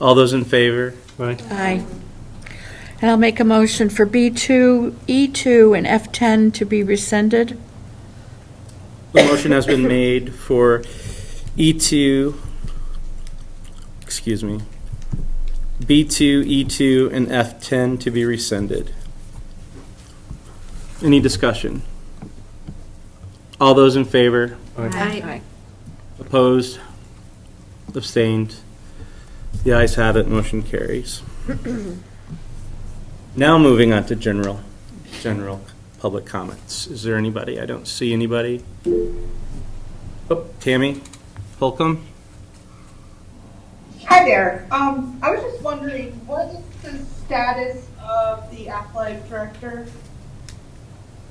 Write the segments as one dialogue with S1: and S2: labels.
S1: All those in favor? Right.
S2: Aye. And I'll make a motion for B2, E2, and F10 to be rescinded.
S1: The motion has been made for E2, excuse me, B2, E2, and F10 to be rescinded. Any discussion? All those in favor?
S2: Aye.
S1: Opposed? Abstained? The ayes have it, motion carries. Now moving on to general, general public comments. Is there anybody? I don't see anybody. Oh, Tammy Holcomb?
S3: Hi there. Um, I was just wondering, what is the status of the athletic director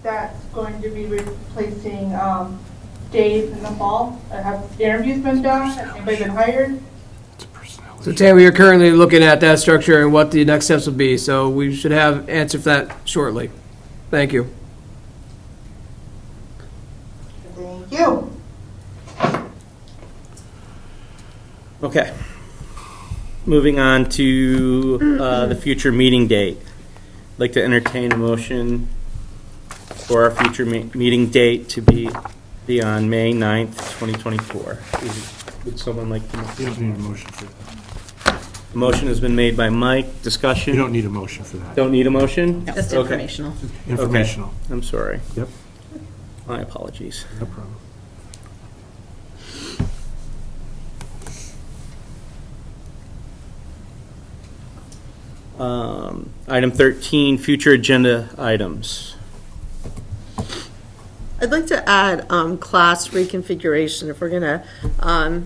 S3: that's going to be replacing, um, Dave in the fall? Uh, Have interviews been done? Has anybody been hired?
S4: So Tam, we are currently looking at that structure and what the next steps will be, so we should have answer for that shortly. Thank you.
S3: Thank you.
S1: Okay. Moving on to uh, the future meeting date. I'd Like to entertain a motion for our future me- meeting date to be, be on May 9th, 2024. Is- Would someone like to?
S5: You don't need a motion for that.
S1: The Motion has been made by Mike.
S5: You
S1: Discussion?
S5: don't need a motion for that.
S1: Don't need a motion?
S6: Just
S1: Okay.
S6: informational.
S5: Informational.
S1: I'm sorry.
S5: Yep.
S1: My apologies.
S5: No problem.
S1: Um, Item 13, future agenda items.
S6: I'd like to add um, class reconfiguration, if we're going to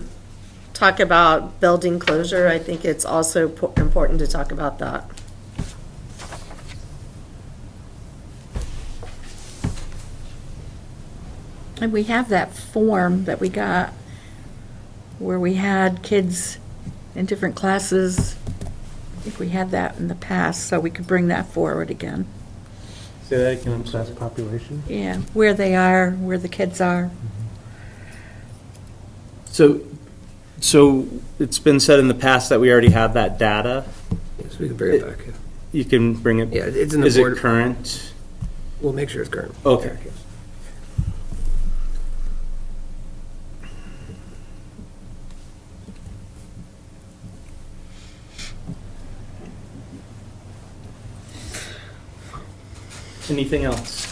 S6: talk about building closure, I think it's also po- important to talk about that.
S2: And we have that form that we got where we had kids in different classes. I think we had that in the past, so we could bring that forward again.
S1: Say that again, I'm sorry.
S5: population?
S2: Yeah, where they are, where the kids are.
S1: So, so it's been said in the past that we already have that data.
S4: So we can bring it back.
S1: You can bring it.
S4: Yeah, it's in the
S1: Is it
S4: board.
S1: current?
S4: We'll make sure it's current.
S1: Okay. Anything else?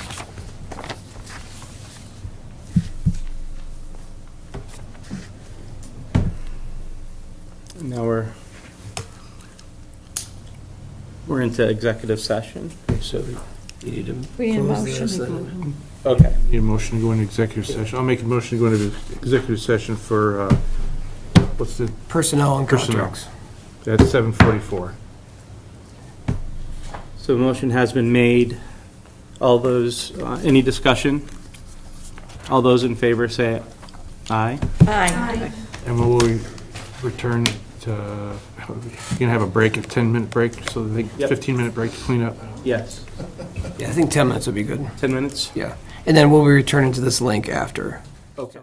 S1: Now we're, we're into executive session.
S4: So you need to.
S2: We need a
S4: close
S2: motion
S4: this,
S2: to go
S4: uh,
S1: Okay.
S5: Need a motion to go into executive session. I'll make a motion to go into executive session for, uh, what's the,
S4: Personnel and
S5: Personnel.
S4: contracts.
S5: that's 744.
S1: So a motion has been made. All those, uh, any discussion? All those in favor say aye.
S2: Aye.
S5: And we'll re- return to, you can have a break, a 10-minute break, so I think
S1: Yep.
S5: 15-minute break to clean up.
S1: Yes.
S4: Yeah, I think 10 minutes would be good.
S1: 10 minutes?
S4: Yeah. And then we'll be returning to this link after.
S1: Okay.